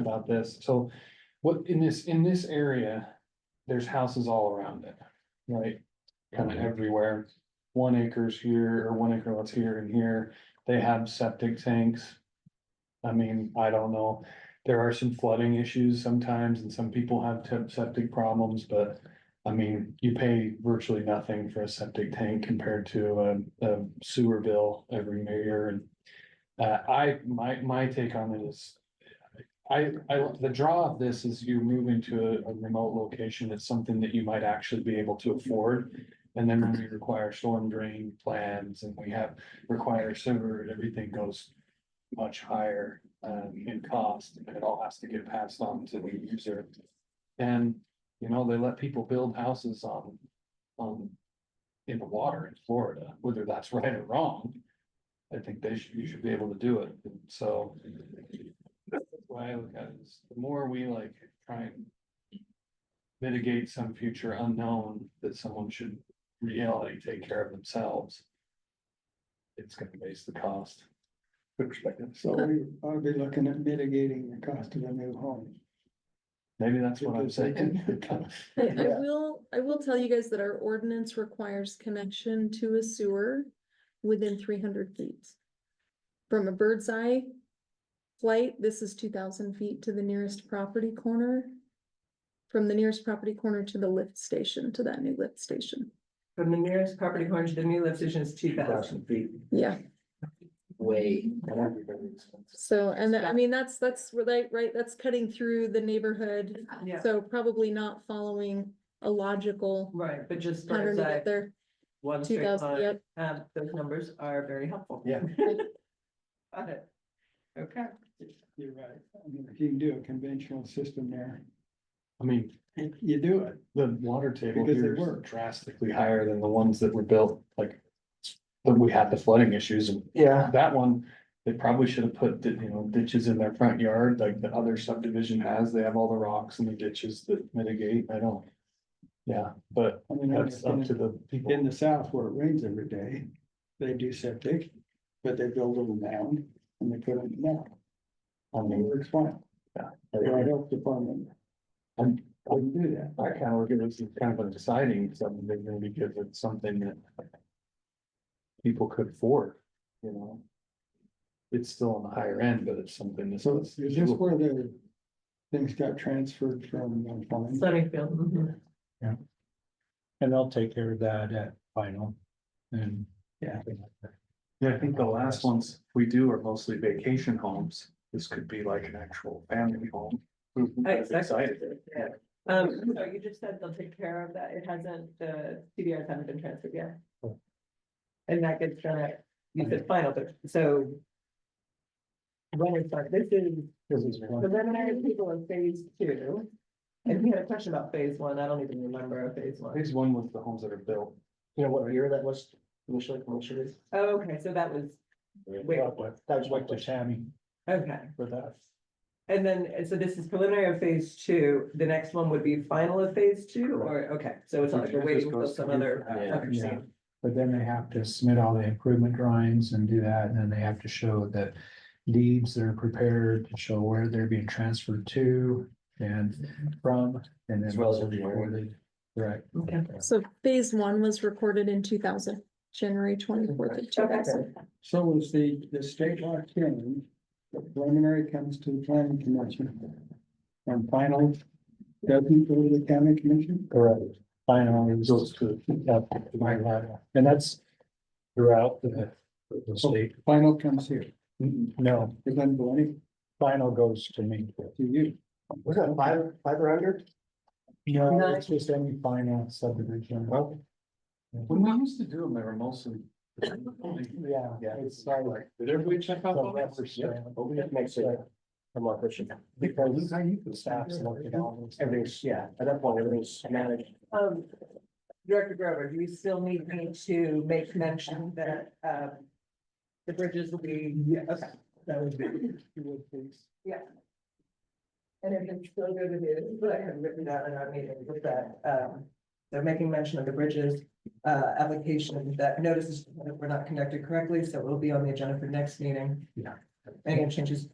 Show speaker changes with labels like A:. A: about this, so what in this, in this area, there's houses all around it, right? Kind of everywhere, one acres here or one acre lots here and here, they have septic tanks. I mean, I don't know, there are some flooding issues sometimes and some people have tip- septic problems, but. I mean, you pay virtually nothing for a septic tank compared to a, a sewer bill every year and. Uh, I, my, my take on it is, I, I, the draw of this is you're moving to a- a remote location, it's something that you might actually be able to afford. And then when we require storm drain plans and we have, require sewer, everything goes much higher um, in cost, and it all has to get passed on to the user. And, you know, they let people build houses on, on, in the water in Florida, whether that's right or wrong. I think they should, you should be able to do it, and so why I look at it is the more we like try and. Mitigate some future unknown that someone should reality take care of themselves. It's gonna raise the cost. Perspective.
B: So we ought to be looking at mitigating the cost of a new home.
A: Maybe that's what I'm saying.
C: I, I
B: Yeah.
C: will, I will tell you guys that our ordinance requires connection to a sewer within three hundred feet. From a bird's eye flight, this is two thousand feet to the nearest property corner. From the nearest property corner to the lift station, to that new lift station.
D: From the nearest property corner to the new lift station is two thousand feet.
C: Yeah,
D: Way.
C: so, and I mean, that's, that's right, right, that's cutting through the neighborhood.
D: Yeah,
C: So probably not following a logical
D: right, but just
C: pattern
D: bird's
C: to
D: eye,
C: get there,
D: one
C: two
D: straight
C: thousand,
D: line,
C: yep.
D: um, those numbers are very helpful.
A: Yeah.
D: Got it. Okay.
B: You're right. I mean, if you can do a conventional system there,
A: I mean,
B: you do it.
A: the water table
B: Because they
A: here
B: work.
A: is drastically higher than the ones that were built, like. When we had the flooding issues and
B: Yeah.
A: that one, they probably should have put, you know, ditches in their front yard, like the other subdivision has, they have all the rocks and the ditches that mitigate, I don't. Yeah, but
B: I mean, I
A: that's up to
B: understand
A: the people.
B: in the south where it rains every day, they do septic, but they build a little mound and they put it in there.
A: I
B: And it
A: mean,
B: works fine. The health department
A: I'm-
B: wouldn't do that.
A: I kind of look at this as kind of an exciting subdivision because it's something that. People could afford, you know. It's still on the higher end, but it's something that's.
B: So is this where the things got transferred from? uh, farm?
D: Sunnyfield, mhm.
E: And they'll take care of that at final and.
B: Yeah.
A: Yeah, I think the last ones we do are mostly vacation homes. This could be like an actual family home.
F: Mm-hmm.
A: That's
D: Exactly.
A: exciting.
D: Yeah. Um, so you just said they'll take care of that. It hasn't, the CDRs haven't been transferred yet. And that gets done at, you said final, but so. When it's like, this is
A: This is one.
D: preliminary people in phase two. And we had a question about phase one. I don't even remember phase one.
A: Phase one was the homes that are built.
F: You know what year that was, initial information is?
D: Oh, okay, so that was, Wait.
F: That was my question.
E: Tammy
D: okay.
E: for that.
D: And then, and so this is preliminary of phase two. The next one would be final of phase two or, okay, so it's not like we're waiting for some other.
F: Yeah.
E: Yeah. But then they have to submit all the improvement drawings and do that, and then they have to show the deeds that are prepared to show where they're being transferred to and from, and then.
F: As well as
E: they'll be
F: everywhere.
E: awarded. Right.
D: Okay.
C: So phase one was recorded in two thousand, January twenty-fourth of two thousand.
B: So was the, the state law changed, the preliminary comes to the planning commission. And final doesn't go to the county commission?
E: Correct. Final results to, yeah, and that's throughout the, the state.
B: Oh, Final comes here,
E: No,
B: it doesn't go any
E: final goes to me.
B: to you.
F: Was that five, five or under?
E: No, it's just any final subdivision.
A: When we used to do them, they were mostly.
E: Yeah,
F: Yeah.
E: it's not like.
A: Did everybody check out?
E: the
A: all that?
E: reference
A: Yep.
E: plan,
F: But we have to make sure. I'm not pushing.
E: Because the staff's looking at all this.
F: Everything's, yeah, at that point, everything's managed.
D: Um, Director Grover, do you still need me to make mention that, um, the bridges will be,
B: Yes,
D: okay,
B: that would be. you would please.
D: and if it's still good it is, but I have written down in our meeting with that, um, they're making mention of the bridges, uh, application that notices that were not conducted correctly, so it'll be on the agenda for next meeting.
E: Yeah.
D: Any changes?